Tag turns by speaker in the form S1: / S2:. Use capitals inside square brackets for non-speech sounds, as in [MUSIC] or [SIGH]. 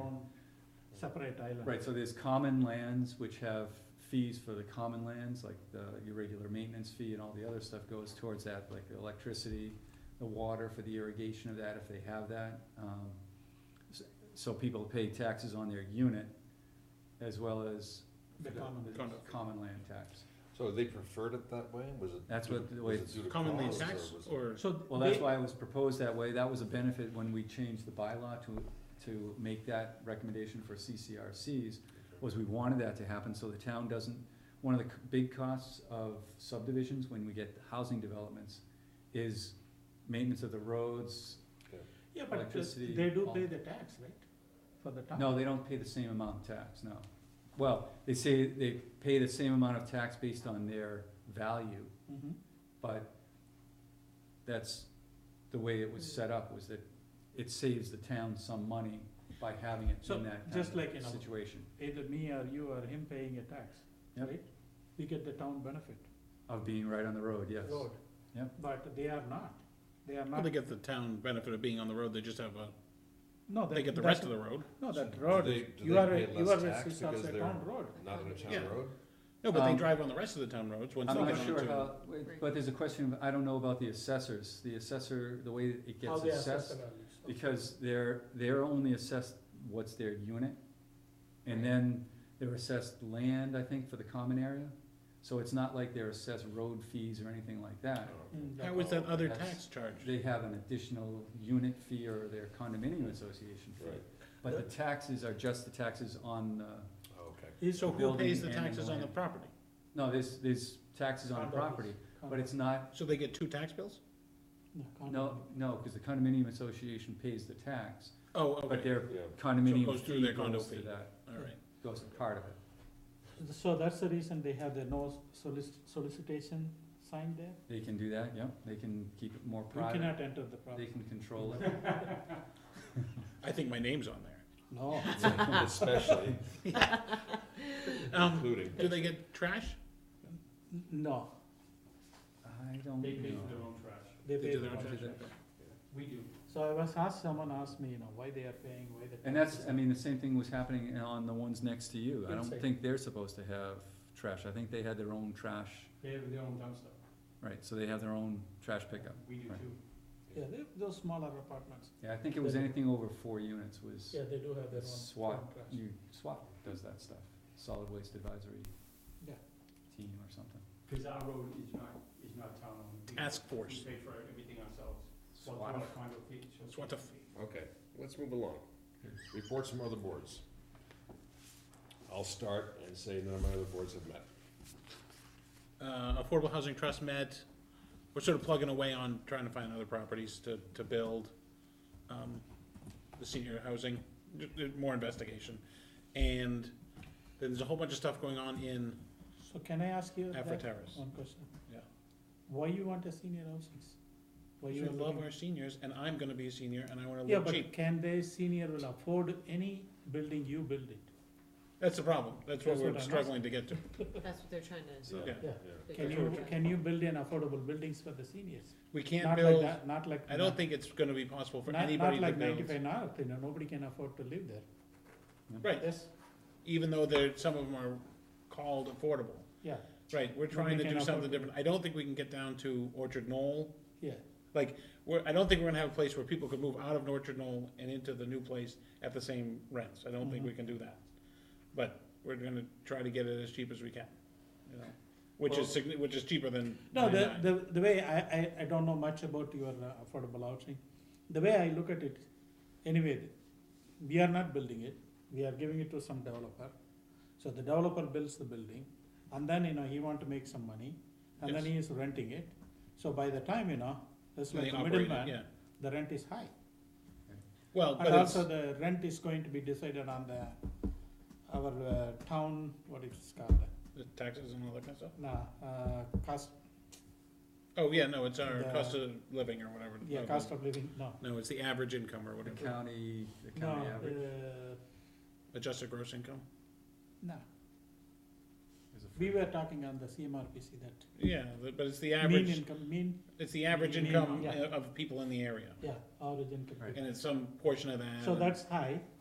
S1: own separate island.
S2: Right, so there's common lands which have fees for the common lands, like the irregular maintenance fee and all the other stuff goes towards that, like the electricity, the water for the irrigation of that, if they have that. Um, s- So people pay taxes on their unit as well as
S1: The
S2: for the-
S1: common
S2: the
S1: Condo.
S2: common land tax.
S3: So they preferred it that way? Was it?
S2: That's what the
S3: was
S2: way-
S3: it due to
S4: commonly
S3: cost,
S4: taxed
S3: was it-
S4: or
S1: So
S2: Well, that's
S1: they-
S2: why it was proposed that way, that was a benefit when we changed the bylaw to, to make that recommendation for CCRCs, was we wanted that to happen, so the town doesn't, one of the c- big costs of subdivisions when we get housing developments is maintenance of the roads,
S1: Yeah, but the-
S2: electricity,
S1: they do
S2: all-
S1: pay the tax, right, for the town?
S2: no, they don't pay the same amount of tax, no. Well, they say they pay the same amount of tax based on their value,
S1: Mhm.
S2: but that's the way it was
S1: Mm.
S2: set up, was that it saves the town some money by having it
S1: So,
S2: in that
S1: just
S2: kind
S1: like in
S2: of
S1: our-
S2: situation
S1: Either me or you or him paying a tax,
S2: Yep.
S1: right? We get the town benefit,
S2: of being right on the road, yes.
S1: road.
S2: Yep.
S1: But they are not, they are
S4: well,
S1: not,
S4: they get the town benefit of being on the road, they just have a,
S1: no, that,
S4: they get the rest of the road.
S1: No, that
S3: Do
S1: road,
S3: they-
S1: is-
S3: do
S1: you
S3: they
S1: are,
S3: pay
S1: a- you
S3: less
S1: are, a-
S3: tax
S1: it's also
S3: because
S1: a
S3: they're-
S1: town road.
S3: Not on a town
S4: Yeah.
S3: road?
S4: No, but they
S2: Um,
S4: drive on the rest of the town roads once they
S2: I'm
S4: get
S2: not sure
S4: onto.
S2: how, but there's a question, of- I don't know about the assessors, the assessor, the way it
S1: How
S2: gets
S1: they assess
S2: assessed,
S1: Oh, the values.
S2: because they're, they're only assessed what's their unit, and then they're assessed land, I think, for the common area, so it's not like they're assessed road fees or anything like that.
S3: Oh,
S1: Mm, that-
S4: How was that other
S2: That's-
S4: tax charge?
S2: They have an additional unit fee or their condominium association fee,
S3: Right.
S2: but the taxes are just the taxes on, uh,
S3: Oh, Okay.
S1: Is
S4: So who pays
S2: building
S4: the
S2: and
S4: taxes on the
S2: land.
S4: property?
S2: no, there's, there's taxes on
S1: Condos.
S2: the property, but it's not
S4: So they get two tax bills?
S1: condo.
S2: No, no, because the condominium association pays the tax,
S4: Oh,
S2: but
S4: okay,
S2: their
S3: Yeah.
S2: condominium
S4: goes through their
S2: fee
S4: condo
S2: goes to
S4: fee.
S2: that,
S4: alright.
S2: goes to part of it.
S1: So that's the reason they have the no solic- solicitation sign there?
S2: They can do that, yep, they can keep it more
S1: You
S2: private,
S1: cannot enter the
S2: they
S1: property.
S2: can control it.
S4: I think my name's on there.
S1: No.
S3: Especially
S4: [LAUGHS] Um,
S3: including.
S4: do they get trash?
S1: N- [LAUGHS] No,
S2: I don't know.
S4: own trash.
S1: they
S4: They
S1: pay
S4: do
S1: the
S4: their own
S1: tax.
S4: trash?
S1: We do. So I was asked, someone asked me, you know, why they are paying, why the.
S2: And
S1: tax
S2: that's,
S1: is-
S2: I mean, the same thing was happening on the ones next to you, I don't
S1: Inside.
S2: think they're supposed to have trash, I think they had their own trash,
S1: They have their own dumpster.
S2: right, so they have their own trash pickup.
S1: We do
S2: Right.
S1: too. Yeah, they have those smaller apartments.
S2: Yeah, I think it was anything over four units was
S1: they do have
S2: SWAT, you, SWAT does that stuff, Solid Waste Advisory
S1: Yeah.
S2: Team or something.
S1: Cause our road is not, is not town owned.
S4: Task force.
S1: pay for everything ourselves.
S2: SWAT.
S4: That's what the f-
S3: Okay, let's move along. Reports from other boards. I'll start and say none of my other boards have met.
S4: Uh, Affordable Housing Trust met, we're sort of plugging away on trying to find other properties to, to build, um, the senior housing, j- j- more investigation. And then there's a whole bunch of stuff going on in
S1: So can I ask you
S4: Afro
S1: that
S4: Terrace.
S1: one question?
S4: Yeah.
S1: Why you want a senior housing? Why
S4: We
S1: you are
S4: love
S1: looking-
S4: our seniors, and I'm gonna be a senior, and I wanna
S1: Yeah,
S4: live
S1: but
S4: cheap.
S1: can they senior will afford any building you build it?
S4: That's the problem, that's what
S1: That's what
S4: we're
S1: I'm
S4: struggling to get to.
S5: That's what they're trying to.
S3: So,
S1: Can
S4: Yeah.
S5: That's
S1: you,
S5: what we're
S1: can you build in affordable buildings for the seniors?
S4: We can't
S1: Not like
S4: build,
S1: that, not like.
S4: I don't think it's gonna be possible for
S1: Not,
S4: anybody
S1: not
S4: to
S1: like
S4: build.
S1: ninety-five north, you know, nobody can afford to live there.
S4: Right,
S1: Yes,
S4: even though there, some of them are called affordable.
S1: yeah,
S4: Right, we're trying
S1: we
S4: to do
S1: can
S4: something
S1: afford-
S4: different. I don't think we can get down to Orchard Knoll.
S1: yeah,
S4: Like, we're, I don't think we're gonna have a place where people could move out of Orchard Knoll and into the new place at the same rents. I
S1: Mm-hmm.
S4: don't think we can do that. But we're gonna try to get it as cheap as we can, you know, which is, signi- which is cheaper than.
S1: no, the,
S4: 99.
S1: the, the way, I, I, I don't know much about your uh, affordable housing. The way I look at it, anyway, we are not building it, we are giving it to some developer. So the developer builds the building, and then, you know, he want to make some money, and then
S4: Yes.
S1: he is renting it. So by the time, you know, it's
S4: And
S1: like
S4: they
S1: the
S4: operate it, yeah.
S1: middleman, the rent is high.
S4: Well, but
S1: And
S4: it's,
S1: also the rent is going to be decided on the, our uh, town, what it's called,
S4: the taxes and all that kind of stuff.
S1: nah, uh, cost,
S4: Oh, yeah, no, it's our
S1: The-
S4: cost of living or whatever.
S1: yeah,
S4: No,
S1: cost of living, no.
S4: No, it's the average income or
S2: The
S4: whatever,
S2: county, the
S1: No,
S2: county average
S1: uh,
S4: adjusted gross income.
S1: no,
S2: is a.
S1: we were talking on the CMRPC that
S4: Yeah, the- but it's the
S1: mean
S4: average,
S1: income, mean,
S4: it's the average
S1: mean,
S4: income uh,
S1: yeah.
S4: of people in the area.
S1: yeah, average income.
S2: Right.
S4: And it's some portion of that.
S1: So
S4: and-
S1: that's high,